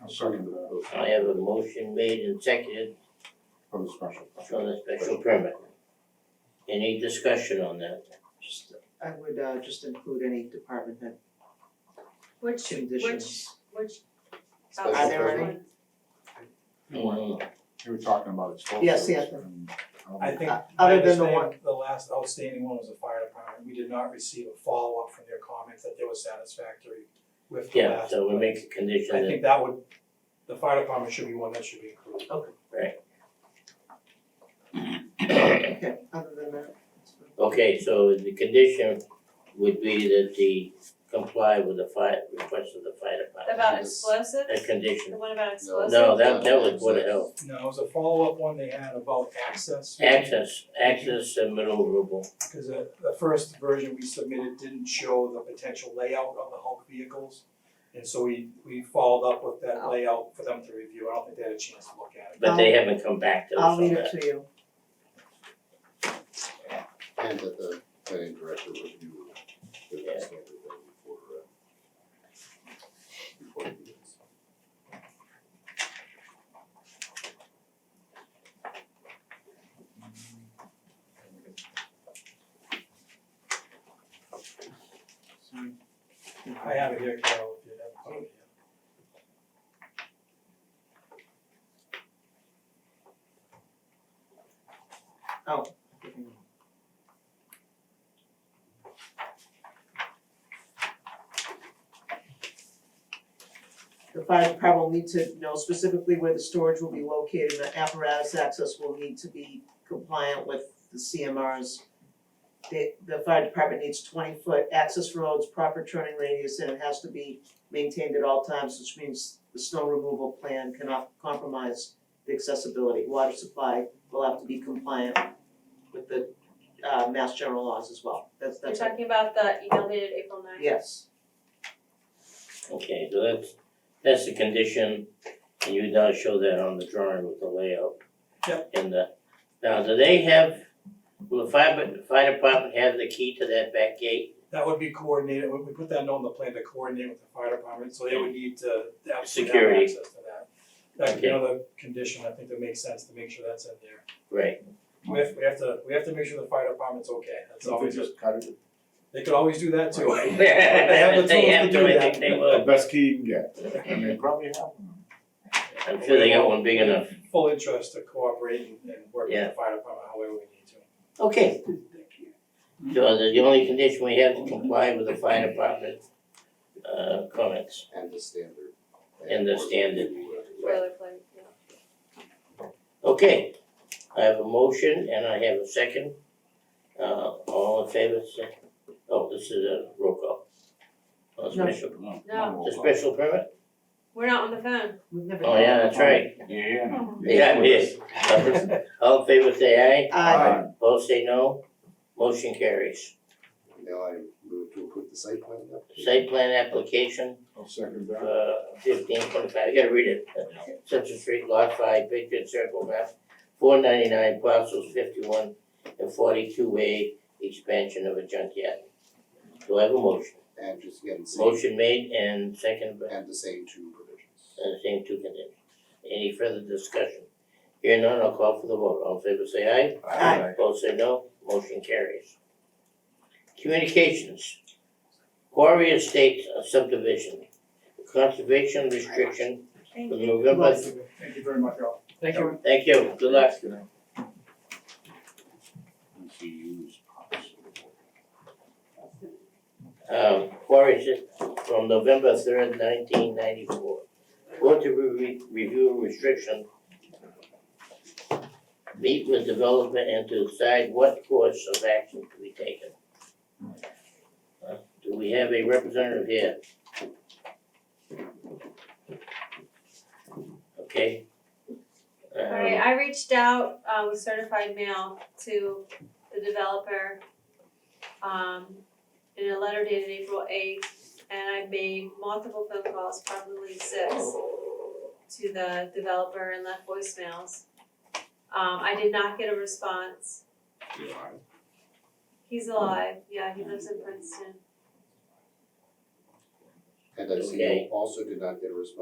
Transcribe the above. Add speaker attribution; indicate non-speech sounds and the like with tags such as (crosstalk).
Speaker 1: I'll second that.
Speaker 2: I have a motion made and seconded
Speaker 1: For the special.
Speaker 2: for the special permit. Any discussion on that?
Speaker 3: Just, I would uh just include any department head
Speaker 4: Which, which,
Speaker 3: conditions.
Speaker 4: which.
Speaker 5: Special
Speaker 3: Are there any?
Speaker 4: ones?
Speaker 2: Mhm.
Speaker 1: You were talking about explosives.
Speaker 3: Yes, yes.
Speaker 1: and, um,
Speaker 6: I think,
Speaker 3: Uh,
Speaker 6: my
Speaker 3: other than the
Speaker 6: understanding,
Speaker 3: one-
Speaker 6: the last outstanding one was the fire department, we did not receive a follow-up from their comments that they were satisfactory with the
Speaker 2: Yeah,
Speaker 6: last.
Speaker 2: so we make a condition
Speaker 6: I
Speaker 2: that,
Speaker 6: think that would, the fire department should be one that should be included.
Speaker 3: Okay, other than that, that's fine.
Speaker 2: okay, so the condition would be that the comply with the fire, request of the fire department.
Speaker 4: About explosive,
Speaker 2: A
Speaker 4: the
Speaker 2: condition,
Speaker 4: one about explosive?
Speaker 2: no, that that was Board of Health,
Speaker 6: No, it was a follow-up one they had about access.
Speaker 2: access, access and maneuverable,
Speaker 6: Cause the, the first version we submitted didn't show the potential layout of the Hulk vehicles. And so we, we followed up with that layout for them to review, I don't think they had a chance to look at it.
Speaker 2: but they haven't come back to us
Speaker 3: I'll
Speaker 2: on
Speaker 3: leave it
Speaker 2: that.
Speaker 3: to you.
Speaker 5: And that the planning director review the best of everything before uh before he does.
Speaker 3: Sorry.
Speaker 6: I have it here, Carol, if you have a copy.
Speaker 3: The fire department will need to know specifically where the storage will be located, and the apparatus access will need to be compliant with the CMRs. The, the fire department needs twenty foot access roads, proper turning radius, and it has to be maintained at all times, which means the snow removal plan cannot compromise the accessibility. Water supply will have to be compliant with the, uh, mass general laws as well, that's,
Speaker 4: You're
Speaker 3: that's,
Speaker 4: talking about the email dated April ninth?
Speaker 3: yes.
Speaker 2: Okay, so that's, that's the condition, and you now show that on the drawing with the layout.
Speaker 6: Yep.
Speaker 2: And the, now, do they have, will the fire, the fire department have the key to that back gate?
Speaker 6: That would be coordinated, we we put that note on the plan to coordinate with the fire department, so they would need to absolutely have
Speaker 2: Security.
Speaker 6: access to that. That could be another condition, I think that makes sense to make sure that's in there.
Speaker 2: Right,
Speaker 6: We have, we have to, we have to make sure the fire department's okay, that's
Speaker 1: So we
Speaker 6: always,
Speaker 1: just cut it.
Speaker 6: they could always do
Speaker 2: (laughs)
Speaker 6: that too.
Speaker 2: If
Speaker 6: They have the
Speaker 2: they
Speaker 6: tools
Speaker 2: have
Speaker 6: to
Speaker 2: to,
Speaker 6: do
Speaker 2: I
Speaker 6: that.
Speaker 2: think they
Speaker 1: The
Speaker 2: will,
Speaker 1: best key you can get, I mean, probably have them.
Speaker 2: I'm sure they got one big enough.
Speaker 6: Full interest to cooperate and and work with
Speaker 2: Yeah.
Speaker 6: the fire department however we need to.
Speaker 2: Okay. So the, the only condition we have to comply with the fire department, uh, comments.
Speaker 5: And the standard.
Speaker 2: And the standard.
Speaker 4: Boilerplate, yeah.
Speaker 2: Okay, I have a motion and I have a second. Uh, all in favor, say, oh, this is a roll call. Oh,
Speaker 3: No.
Speaker 2: special,
Speaker 1: No.
Speaker 4: No.
Speaker 2: the special permit?
Speaker 4: We're not on the phone.
Speaker 3: We've never.
Speaker 2: Oh,
Speaker 6: (laughs)
Speaker 2: yeah, that's right.
Speaker 1: Yeah.
Speaker 2: Yeah, I'm here. All in favor, say
Speaker 3: Aye.
Speaker 2: aye. Both say no. Motion carries.
Speaker 5: Now I move to approve the site plan update.
Speaker 2: Site plan application
Speaker 1: I'll second that.
Speaker 2: uh fifteen twenty-five, I gotta read it. Central Street, Lot Five, Patriot Circle, map four ninety-nine, parcels fifty-one and forty-two A, expansion of a junkyard. Do I have a motion?
Speaker 5: And just again, same
Speaker 2: Motion made and second, by-
Speaker 5: and the same two provisions.
Speaker 2: and the same two conditions. Any further discussion? Here none, I'll call for the vote, all in favor say aye.
Speaker 3: Aye.
Speaker 2: Both say no, motion carries. Communications. Quarry Estates subdivision, conservation restriction
Speaker 4: Thank
Speaker 2: from
Speaker 4: you.
Speaker 2: November.
Speaker 1: Thank you very much, all.
Speaker 6: Thank you.
Speaker 2: Thank you, good luck. Um, Quarry Estates from November third nineteen ninety-four. Board to re- review restriction. Meet with developer and to decide what course of action to be taken. Uh, Do we have a representative here? Okay. Um,
Speaker 4: Alright, I reached out uh with certified mail to the developer um in a letter dated April eighth and I made multiple phone calls, probably six to the developer and left voicemails. Um I did not get a response. He's alive, yeah, he lives in Princeton.
Speaker 5: And I see
Speaker 2: Okay.
Speaker 5: you also did not get a response